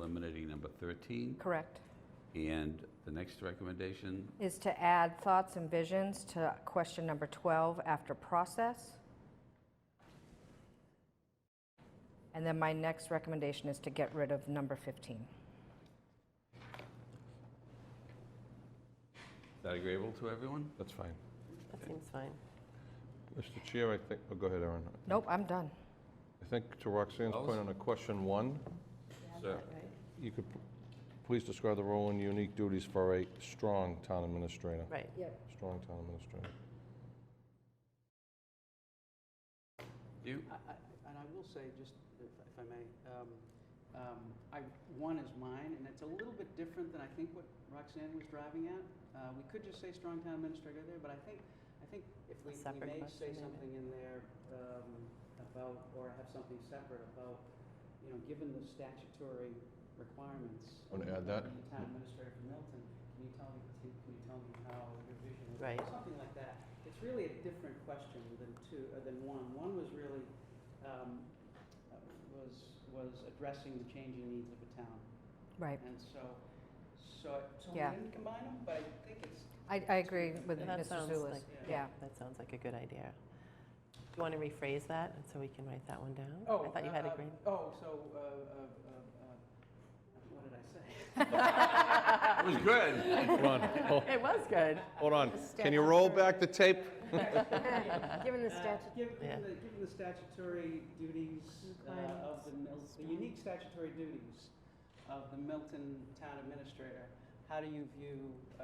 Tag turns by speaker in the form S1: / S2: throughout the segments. S1: eliminating number 13.
S2: Correct.
S1: And the next recommendation,
S2: Is to add thoughts and visions to question number 12 after process. And then my next recommendation is to get rid of number 15.
S1: is that agreeable to everyone?
S3: That's fine.
S4: That seems fine.
S3: Mr. Chair, I think, oh, go ahead, Aaron.
S2: Nope, I'm done.
S3: I think to Roxanne's point on a question one,
S1: Sir,
S3: you could p- please describe the role and unique duties for a strong town administrator.
S4: Right.
S3: Strong town administrator.
S1: you?
S5: I- I- And I will say, just if if I may, um, um, I, one is mine, and it's a little bit different than I think what Roxanne was driving at. Uh, We could just say strong town administrator there, but I think, I think if we we
S4: separate
S5: may
S4: question,
S5: say
S4: maybe.
S5: something in there um, about, or have something separate about, you know, given the statutory requirements.
S3: Want to add that?
S5: of The town administrator for Milton, can you tell me, can you tell me how your vision is?
S4: Right.
S5: Something like that. It's really a different question than two, uh, than one. One was really, um, uh, was, was addressing the changing needs of a town.
S2: Right.
S5: And so, so, so we
S2: Yeah.
S5: didn't combine them, but I think it's,
S2: I, I agree with
S5: Yeah,
S4: That
S2: Mr.
S4: sounds
S2: Zulus.
S4: like-
S2: Yeah.
S4: That sounds like a good idea. Do you want to rephrase that and so we can write that one down?
S5: oh.
S4: I thought you
S5: uh,
S4: had
S5: uh,
S4: agreed.
S5: Oh, so, uh, uh, uh, uh, what did I say?
S1: It was good.
S3: Hold on,
S5: uh,
S3: hol-
S4: It was good.
S3: hold on. Can you roll back the tape?
S6: Given the
S5: Uh,
S6: statute,
S5: given
S4: Yeah.
S5: the- Given the statutory duties uh, of the Mil, the unique statutory duties of the Milton Town Administrator, how do you view, uh,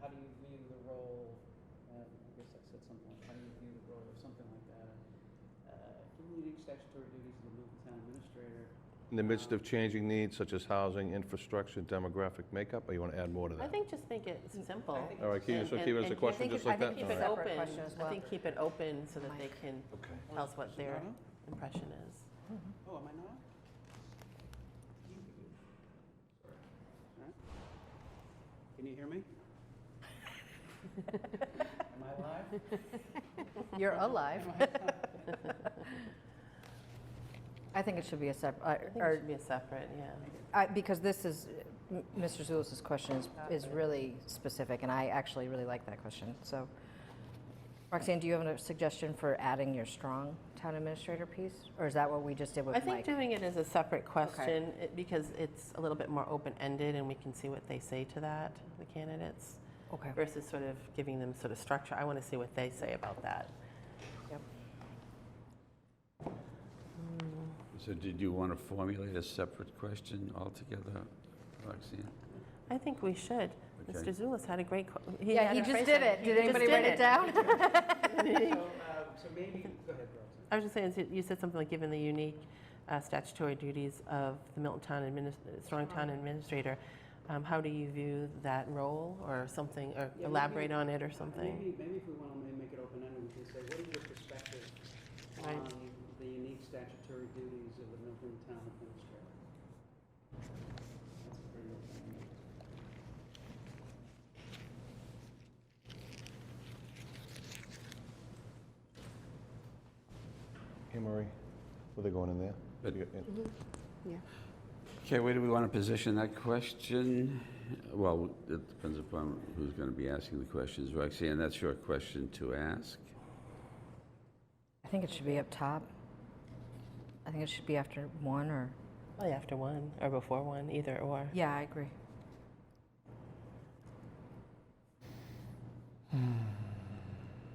S5: how do you view the role, uh, I guess I said something, like, how do you view the role or something like that? Uh, Given the unique statutory duties of the Milton Town Administrator,
S3: In the midst of changing needs such as housing, infrastructure, demographic makeup, or you want to add more to
S4: I
S3: that?
S4: think just think it's simple.
S5: think
S3: All right, can you
S4: And-
S3: just keep it as a
S4: and-
S2: I
S3: question
S2: think
S3: just
S2: it- I
S3: like that?
S2: think
S4: Keep
S2: it's
S4: it
S3: All right.
S2: separate
S4: open.
S2: question as
S4: I
S2: well.
S4: think keep it open so that they can
S3: Okay.
S4: tell us what their
S5: Not on?
S4: impression is.
S5: Oh, am I not? on? Huh? Can you hear me? Am I live?
S2: You're alive. I think it should be a
S4: I
S2: separate,
S4: think it
S2: or,
S4: should be a separate, yeah.
S2: I- because this is, m- Mr. Zulus's question is, is really specific, and I actually really like that question, so. Roxanne, do you have a suggestion for adding your strong town administrator piece? Or is that what we just did with
S4: I
S2: Mike?
S4: think doing it as a separate question, it- because it's a little bit more open-ended and we can see what they say to that, the candidates,
S2: Okay,
S4: versus sort of giving them sort of structure. I want to see what they say about that.
S1: So did you want to formulate a separate question altogether, Roxanne?
S4: I think we should.
S1: Okay.
S4: Mr. Zulus had a great. qu-
S2: yeah,
S4: had
S2: he
S4: a
S2: just
S4: phrase
S2: did
S4: on-
S2: it,
S4: he
S2: did
S4: just
S2: anybody write it down?
S5: So, uh, so maybe, go ahead, Roxanne.
S4: I was just saying, so you said something like, given the unique uh, statutory duties of the Milton Town adminis- uh, Strong Town Administrator, um, how do you view that role or something, or
S5: maybe-
S4: elaborate on it or something?
S5: Maybe, maybe if we want to make it open-ended, we can say, what is your perspective
S4: Right.
S5: on the unique statutory duties of the Milton Town Administrator? That's pretty open-ended.
S3: Hey, Marie, were they going in there?
S1: But-
S3: You got-
S1: Okay, where do we want to position that question? Well, it depends upon who's going to be asking the questions. Roxanne, that's your question to ask.
S2: I think it should be up top. I think it should be after one or,
S4: Probably after one or before one, either or.
S2: yeah, I agree.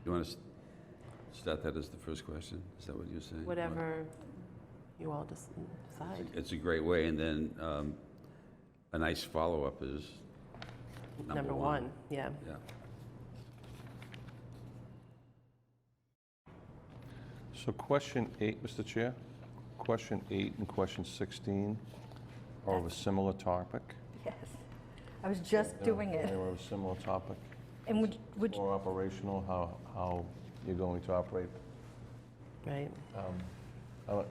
S1: You want to start that as the first question? Is that what you're saying?
S4: Whatever you all just decide.
S1: It's a great way, and then um, a nice follow-up is number,
S4: Number one, yeah.
S1: Yeah.
S3: So question eight, Mr. Chair, question eight and question 16 are of a similar topic.
S2: Yes. I was just
S3: They're-
S2: doing
S3: They
S2: it.
S3: were of a similar topic.
S2: And would, would,
S3: More operational, how, how you're going to operate.
S4: Right.
S3: Um, I don't-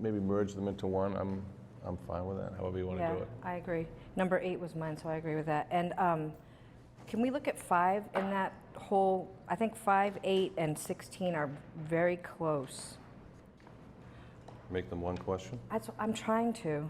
S3: Maybe merge them into one, I'm, I'm fine with that, however you want to
S2: yeah,
S3: do it.
S2: I agree. Number eight was mine, so I agree with that. And um, can we look at five in that whole, I think five, eight, and 16 are very close.
S3: Make them one question?
S2: That's, I'm trying to.